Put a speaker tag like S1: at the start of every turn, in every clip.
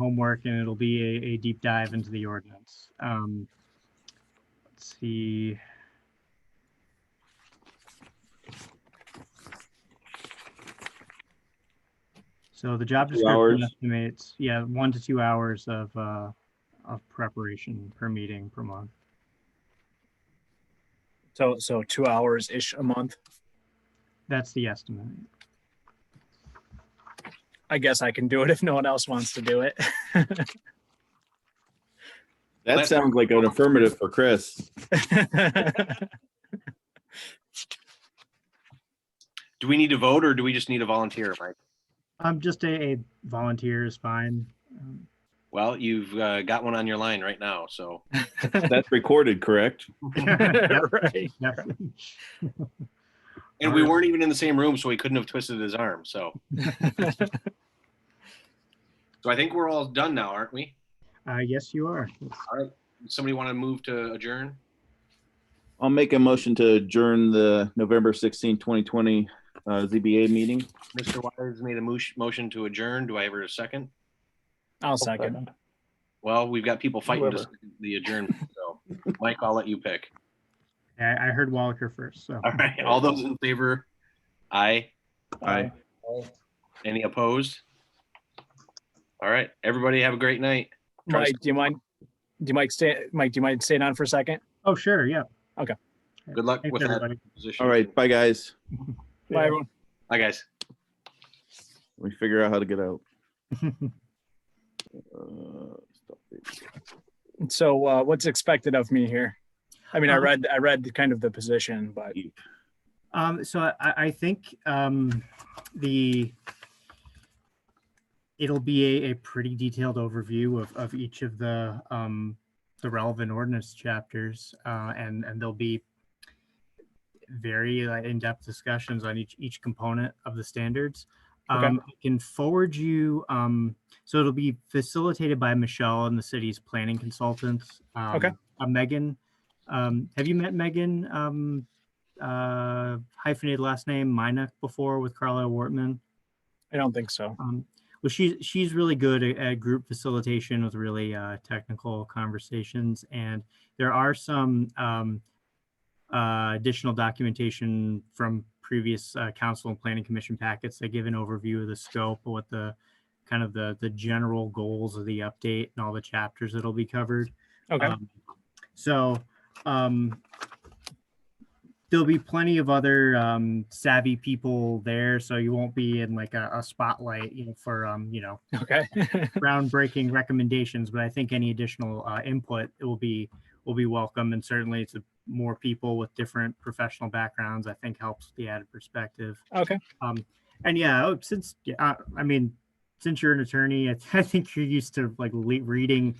S1: homework and it'll be a, a deep dive into the ordinance. Um, let's see. So the job
S2: Two
S1: description
S2: hours.
S1: estimates, yeah, one to two hours of, uh, of preparation per meeting per month.
S3: So, so two hours ish a month.
S1: That's the estimate.
S3: I guess I can do it if no one else wants to do it.
S2: That sounds like an affirmative for Chris.
S4: Do we need to vote or do we just need a volunteer, Mike?
S1: Um, just a, a volunteer is fine. Um,
S4: Well, you've uh, got one on your line right now, so
S2: That's recorded, correct?
S1: yep,
S3: right.
S1: yep.
S4: and we weren't even in the same room, so he couldn't have twisted his arm. So, so I think we're all done now, aren't we?
S1: Uh, yes, you are.
S4: Somebody want to move to adjourn?
S2: I'll make a motion to adjourn the November 16, 2020 uh, ZBA meeting.
S4: Mr. Wires made a moosh- motion to adjourn. Do I ever a second?
S3: I'll second.
S4: Well, we've got people fighting to
S2: Whoever.
S4: second the adjournment. So, Mike, I'll let you pick.
S1: I, I heard Wallaker first, so.
S4: All right. All those in favor? Aye.
S2: Aye.
S4: Any opposed? All right. Everybody have a great night.
S3: Mike, do you mind? Do you mind stay? Mike, do you mind staying on for a second?
S1: Oh, sure, yeah.
S4: Good luck
S1: Thanks,
S4: with that
S1: everybody.
S4: position.
S2: All right, bye, guys.
S3: Bye, everyone.
S4: Bye, guys.
S2: Let me figure out how to get out. Uh, stop it.
S3: So, uh, what's expected of me here? I mean, I
S1: Um,
S3: read, I read kind of the position, but
S1: Um, so I, I think um, the it'll be a, a pretty detailed overview of, of each of the um, the relevant ordinance chapters, uh, and and there'll be very uh, in-depth discussions on each each component of the standards.
S3: Okay.
S1: Um, I can forward you. Um, so it'll be facilitated by Michelle and the city's planning consultants. Um,
S3: Okay.
S1: Uh, Megan, um, have you met Megan um, uh, hyphenated last name Minuk before with Carla Wortman.
S3: I don't think so.
S1: Um, well, she's she's really good at, at group facilitation with really uh, technical conversations, and there are some um, uh, additional documentation from previous uh, council and planning commission packets that give an overview of the scope, what the kind of the the general goals of the update, and all the chapters that'll be covered.
S3: Okay.
S1: Um, So, um, there'll be plenty of other, um, savvy people there, so you won't be in like a, a spotlight, you know, for, um, you know,
S3: Okay.
S1: groundbreaking recommendations, but I think any additional, uh, input will be, will be welcome, and certainly it's more people with different professional backgrounds, I think helps the added perspective.
S3: okay.
S1: Um, and yeah, oh, since yeah, uh, I mean, since you're an attorney, I, I think you're used to like le- reading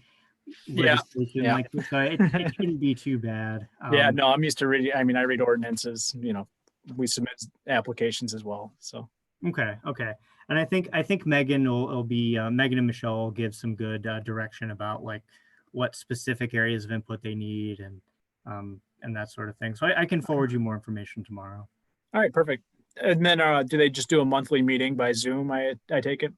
S3: Yeah,
S1: legislation
S3: yeah.
S1: like this, so it, it shouldn't be too bad.
S3: Yeah.
S1: Um,
S3: No, I'm used to reading. I mean, I read ordinances. You know, we submit applications as well. So.
S1: Okay. Okay. And I think I think Megan will, will be uh, Megan and Michelle will give some good uh, direction about like what specific areas of input they need and um, and that sort of thing. So I, I can forward you more information tomorrow.
S3: All right. Perfect. And then, uh, do they just do a monthly meeting by Zoom? I, I take it.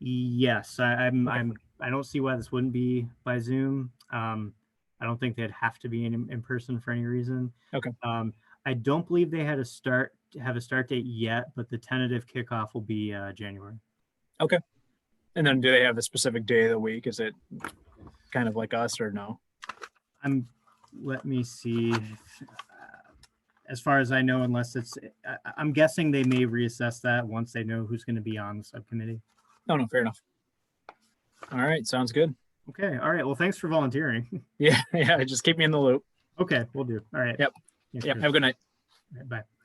S1: Yes, I, I'm.
S3: Okay.
S1: I'm. I don't see why this wouldn't be by Zoom. Um, I don't think they'd have to be in in person for any reason.
S3: Okay.
S1: Um, I don't believe they had a start have a start date yet, but the tentative kickoff will be uh, January.
S3: And then, do they have a specific day of the week? Is it kind of like us or no?
S1: I'm, let me see. if, uh, As far as I know, unless it's, I, I- I'm guessing they may reassess that once they know who's going to be on the subcommittee.
S3: Oh, No, no, fair enough. All right, sounds good.
S1: Okay, all right. Well, thanks for volunteering.
S3: Yeah, yeah, just keep me in the loop.
S1: Okay, we'll do. All right.
S3: Yep,
S1: Thanks,
S3: Yeah,
S1: Chris.
S3: have a good night.
S1: All right, Bye.